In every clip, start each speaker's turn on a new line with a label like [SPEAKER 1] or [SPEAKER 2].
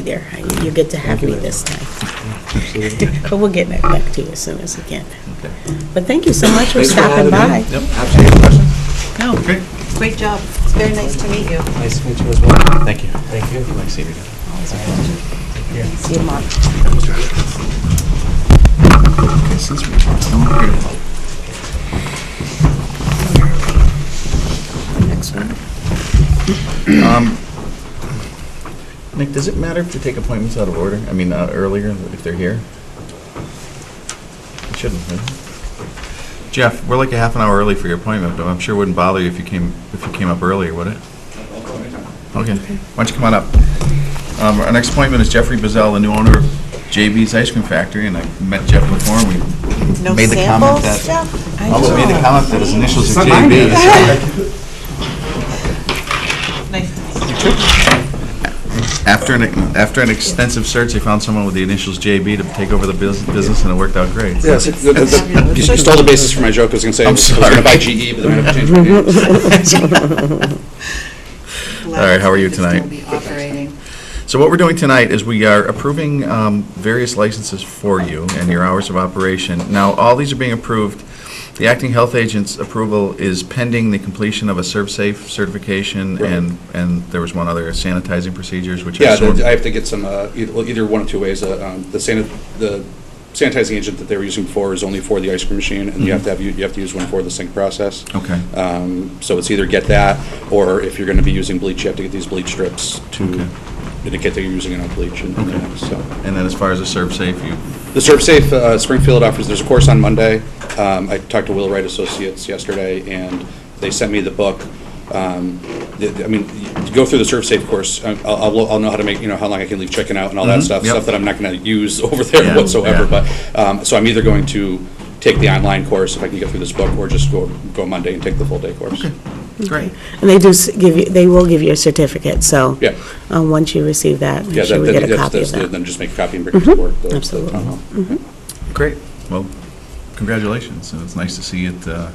[SPEAKER 1] there. You're good to have me this time. But we'll get that back to you as soon as we can.
[SPEAKER 2] Okay.
[SPEAKER 1] But thank you so much for
[SPEAKER 2] Thanks for all
[SPEAKER 1] stopping
[SPEAKER 2] the-
[SPEAKER 1] by.
[SPEAKER 2] Yep, absolutely, question?
[SPEAKER 1] No,
[SPEAKER 2] Great.
[SPEAKER 3] Great job. It's very nice to meet you.
[SPEAKER 4] Nice to meet you as well.
[SPEAKER 2] Thank you.
[SPEAKER 4] Thank you.
[SPEAKER 2] Nice to see you.
[SPEAKER 1] see you, Mark.
[SPEAKER 2] Okay, since we're still here. Next one. Um, Nick, does it matter if they take appointments out of order? I mean, uh, earlier, if they're here? It shouldn't, right? Jeff, we're like a half an hour early for your appointment, but I'm sure it wouldn't bother you if you came, if you came up earlier, would it? Okay, why don't you come on up? Um, Our next appointment is Jeffrey Bazell, the new owner of JB's Ice Cream Factory, and I met Jeff before, and we
[SPEAKER 3] No
[SPEAKER 2] made the comment that...
[SPEAKER 3] samples, Jeff?
[SPEAKER 2] Although made the comment that his initials are
[SPEAKER 4] It's not mine,
[SPEAKER 2] JB.
[SPEAKER 3] Nice to meet you.
[SPEAKER 2] After an, after an extensive search, they found someone with the initials JB to take over the bus- business, and it worked out great.
[SPEAKER 4] Yes, it- the- the- the- you stole the basis for my joke, I was gonna say, I
[SPEAKER 2] I'm
[SPEAKER 4] was gonna
[SPEAKER 2] sorry.
[SPEAKER 4] buy GE, E, but then I have to change my name.
[SPEAKER 3] Glad
[SPEAKER 2] All right, how are you
[SPEAKER 3] it's still
[SPEAKER 2] tonight?
[SPEAKER 3] be operating.
[SPEAKER 2] So what we're doing tonight is we are approving um, various licenses for you and your hours of operation. Now, all these are being approved. The acting health agent's approval is pending the completion of a ServSafe certification, and, and there was one other sanitizing procedures, which I
[SPEAKER 4] Yeah,
[SPEAKER 2] assume...
[SPEAKER 4] the- I have to get some, uh, eith- well, either one of two ways. Uh, um, The sanit- the sanitizing agent that they were using before is only for the ice cream machine, and you have to have, you you have to use one for the sink process.
[SPEAKER 2] Okay.
[SPEAKER 4] Um, So it's either get that, or if you're gonna be using bleach, you have to get these bleach strips
[SPEAKER 2] Okay.
[SPEAKER 4] to indicate that you're using enough bleach and
[SPEAKER 2] Okay.
[SPEAKER 4] and, so.
[SPEAKER 2] And then as far as the ServSafe, you
[SPEAKER 4] The ServSafe uh, Springfield offers, there's a course on Monday. Um, I talked to Wheelwright Associates yesterday, and they sent me the book. Um, the- the- I mean, y- to go through the ServSafe course, I- I'll, I'll- I'll know how to make, you know, how long I can leave chicken out and all that
[SPEAKER 2] Mhm,
[SPEAKER 4] stuff,
[SPEAKER 2] yep.
[SPEAKER 4] stuff that I'm not going to use over
[SPEAKER 2] Yeah,
[SPEAKER 4] there whatsoever,
[SPEAKER 2] yeah.
[SPEAKER 4] but, um, so I'm either going to take the online course, if I can get through this book, or just go, go Monday and take the full day course.
[SPEAKER 2] Great.
[SPEAKER 1] And they do s- give you, they will give you a certificate, so.
[SPEAKER 4] Yeah.
[SPEAKER 1] um, Once you receive that,
[SPEAKER 4] Yeah,
[SPEAKER 1] make
[SPEAKER 4] that-
[SPEAKER 1] sure we
[SPEAKER 4] that-
[SPEAKER 1] get a
[SPEAKER 4] that's-
[SPEAKER 1] copy of
[SPEAKER 4] that's the-
[SPEAKER 1] that. Mm-hmm.
[SPEAKER 4] Then just make a copy and bring it to work. the- the
[SPEAKER 1] absolutely. Mm-hmm.
[SPEAKER 4] town hall.
[SPEAKER 2] Great. Well, congratulations, and it's nice to see it, uh,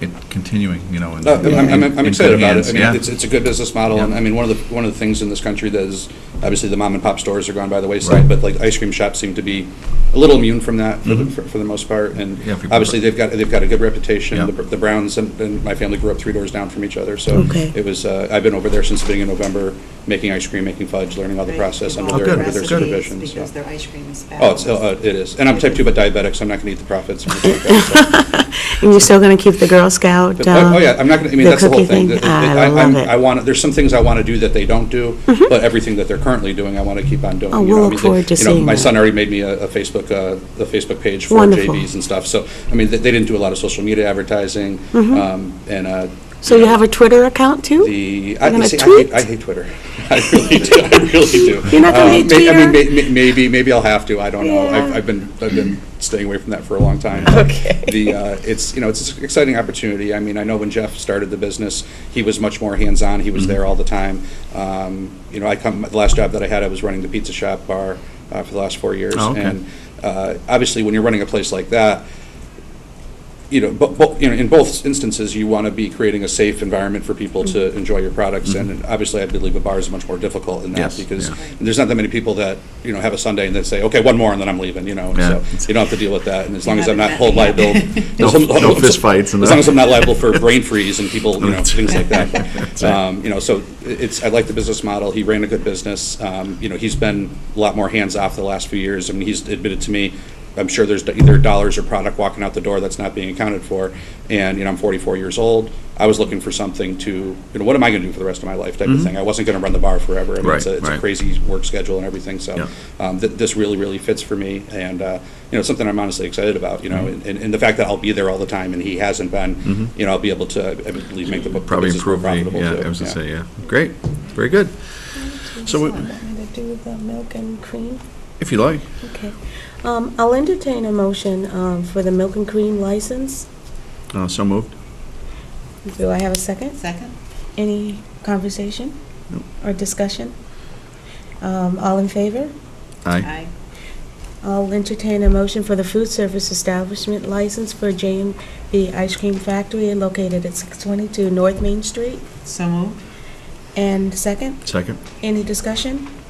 [SPEAKER 2] it continuing, you know, in
[SPEAKER 4] Uh, I'm- I'm,
[SPEAKER 2] in
[SPEAKER 4] I'm
[SPEAKER 2] good
[SPEAKER 4] excited about it.
[SPEAKER 2] hands.
[SPEAKER 4] I mean,
[SPEAKER 2] Yeah.
[SPEAKER 4] it's, it's a good business model, and
[SPEAKER 2] Yeah.
[SPEAKER 4] I mean, one of the, one of the things in this country that is, obviously, the mom and pop stores are gone by the
[SPEAKER 2] Right.
[SPEAKER 4] wayside, but like, ice cream shops seem to be a little immune from that, for the-
[SPEAKER 2] Mhm.
[SPEAKER 4] for for the most part, and
[SPEAKER 2] Yeah, people-
[SPEAKER 4] obviously, they've got, they've got a good reputation.
[SPEAKER 2] Yeah.
[SPEAKER 4] The Br- The Browns and, and my family grew up three doors down from each other, so
[SPEAKER 1] Okay.
[SPEAKER 4] it was, uh, I've been over there since the beginning of November, making ice cream, making fudge, learning all the
[SPEAKER 3] Right,
[SPEAKER 4] process
[SPEAKER 3] they've
[SPEAKER 4] under
[SPEAKER 3] all
[SPEAKER 2] Oh, good,
[SPEAKER 4] their, under their
[SPEAKER 3] recipes
[SPEAKER 4] supervision. so.
[SPEAKER 3] Because their ice cream is
[SPEAKER 4] Oh, it's,
[SPEAKER 3] fabulous.
[SPEAKER 4] uh, it is, and I'm type two but diabetic, so I'm not gonna eat the profits. and everything like that, so.
[SPEAKER 1] And you're still going to keep the Girl Scout?
[SPEAKER 4] Oh,
[SPEAKER 1] uh,
[SPEAKER 4] oh, yeah, I'm not gonna, I mean,
[SPEAKER 1] the
[SPEAKER 4] that's the whole
[SPEAKER 1] cookie Ah,
[SPEAKER 4] thing. That- that-
[SPEAKER 1] I
[SPEAKER 4] I'm-
[SPEAKER 1] love
[SPEAKER 4] I
[SPEAKER 1] it. Mm-hmm.
[SPEAKER 4] want, there's some things I wanna do that they don't do, but everything that they're currently doing, I wanna keep on doing.
[SPEAKER 1] Oh,
[SPEAKER 4] you
[SPEAKER 1] we'll
[SPEAKER 4] know, I
[SPEAKER 1] look
[SPEAKER 4] mean, they-
[SPEAKER 1] forward to
[SPEAKER 4] you know,
[SPEAKER 1] seeing
[SPEAKER 4] My
[SPEAKER 1] that.
[SPEAKER 4] son already made me a a Facebook, uh, a Facebook page for
[SPEAKER 1] Wonderful.
[SPEAKER 4] JBs and stuff, so, I mean, they they didn't do a lot of social media advertising,
[SPEAKER 1] Mm-hmm.
[SPEAKER 4] um, and, uh.
[SPEAKER 1] So you have a Twitter account, too?
[SPEAKER 4] The,
[SPEAKER 1] You're
[SPEAKER 4] I,
[SPEAKER 1] gonna
[SPEAKER 4] see, I hate,
[SPEAKER 1] tweet?
[SPEAKER 4] I hate Twitter. I really do, I really do.
[SPEAKER 1] You're not gonna
[SPEAKER 4] Uh,
[SPEAKER 1] hate
[SPEAKER 4] may- I mean,
[SPEAKER 1] Twitter?
[SPEAKER 4] may- may- Maybe, maybe I'll have to, I don't know. I've,
[SPEAKER 1] Yeah.
[SPEAKER 4] I've been, I've been staying away from that for a long time.
[SPEAKER 1] Okay.
[SPEAKER 4] The, uh, it's, you know, it's an exciting opportunity. I mean, I know when Jeff started the business, he was much more hands-on, he
[SPEAKER 2] Mm-hmm.
[SPEAKER 4] was there all the time. Um, You know, I come, the last job that I had, I was running the pizza shop bar uh, for the last four years.
[SPEAKER 2] Oh, okay.
[SPEAKER 4] And uh, obviously, when you're running a place like that, you know, bo- bo- you know, in both instances, you want to be creating a safe environment for people
[SPEAKER 2] Mm-hmm.
[SPEAKER 4] to enjoy your products, and obviously, I believe a bar is much more difficult in
[SPEAKER 2] Yes,
[SPEAKER 4] that, because
[SPEAKER 2] yeah.
[SPEAKER 4] there's not that many people that, you know, have a Sunday and then say, okay, one more, and then I'm leaving, you know,
[SPEAKER 2] Yeah.
[SPEAKER 4] so you don't have to deal with that, and as long as I'm not
[SPEAKER 3] Not that
[SPEAKER 4] hold
[SPEAKER 3] bad.
[SPEAKER 4] liable.
[SPEAKER 2] No-
[SPEAKER 4] as long-
[SPEAKER 2] no fistfights and
[SPEAKER 4] As long
[SPEAKER 2] that.
[SPEAKER 4] as I'm not liable for brain freeze and people, you know, things like
[SPEAKER 2] That's
[SPEAKER 4] that.
[SPEAKER 2] right.
[SPEAKER 4] Um, You know, so it's, I like the business model, he ran a good business, um, you know, he's been a lot more hands-off the last few years, I mean, he's admitted to me, I'm sure there's either dollars or product walking out the door that's not being accounted for. And, you know, I'm 44 years old. I was looking for something to, you know, what am I going to do for the rest of my life type of thing? I wasn't going to run the bar forever. I mean, it's
[SPEAKER 2] Mm-hmm. Right,
[SPEAKER 4] a, it's
[SPEAKER 2] right.
[SPEAKER 4] a crazy work schedule and everything. So
[SPEAKER 2] Yeah.
[SPEAKER 4] um, th- this really, really fits for me. And, uh, you know, it's something I'm honestly excited about, you know,
[SPEAKER 2] Mm-hmm.
[SPEAKER 4] and, and the fact that I'll be there all the time and he hasn't been, you know, I'll be able to, I believe, make the bu- the
[SPEAKER 2] Probably
[SPEAKER 4] business more
[SPEAKER 2] improve the,
[SPEAKER 4] profitable.
[SPEAKER 2] yeah,
[SPEAKER 4] too.
[SPEAKER 2] I was gonna say, yeah. Great, very good. So we-
[SPEAKER 1] to do with the milk and cream?
[SPEAKER 2] if you like.
[SPEAKER 1] Okay. Um, I'll entertain a motion um, for the milk and cream license.
[SPEAKER 2] Uh, So moved.
[SPEAKER 1] Do I have a second?
[SPEAKER 3] Second?
[SPEAKER 1] Any conversation
[SPEAKER 2] Nope.
[SPEAKER 1] or discussion? Um, All in favor?
[SPEAKER 2] Aye.
[SPEAKER 3] Aye.
[SPEAKER 1] I'll entertain a motion for the food service establishment license for JMB Ice Cream Factory located at 622 North Main Street.
[SPEAKER 3] So moved?
[SPEAKER 1] And second,
[SPEAKER 2] Second.
[SPEAKER 1] any discussion?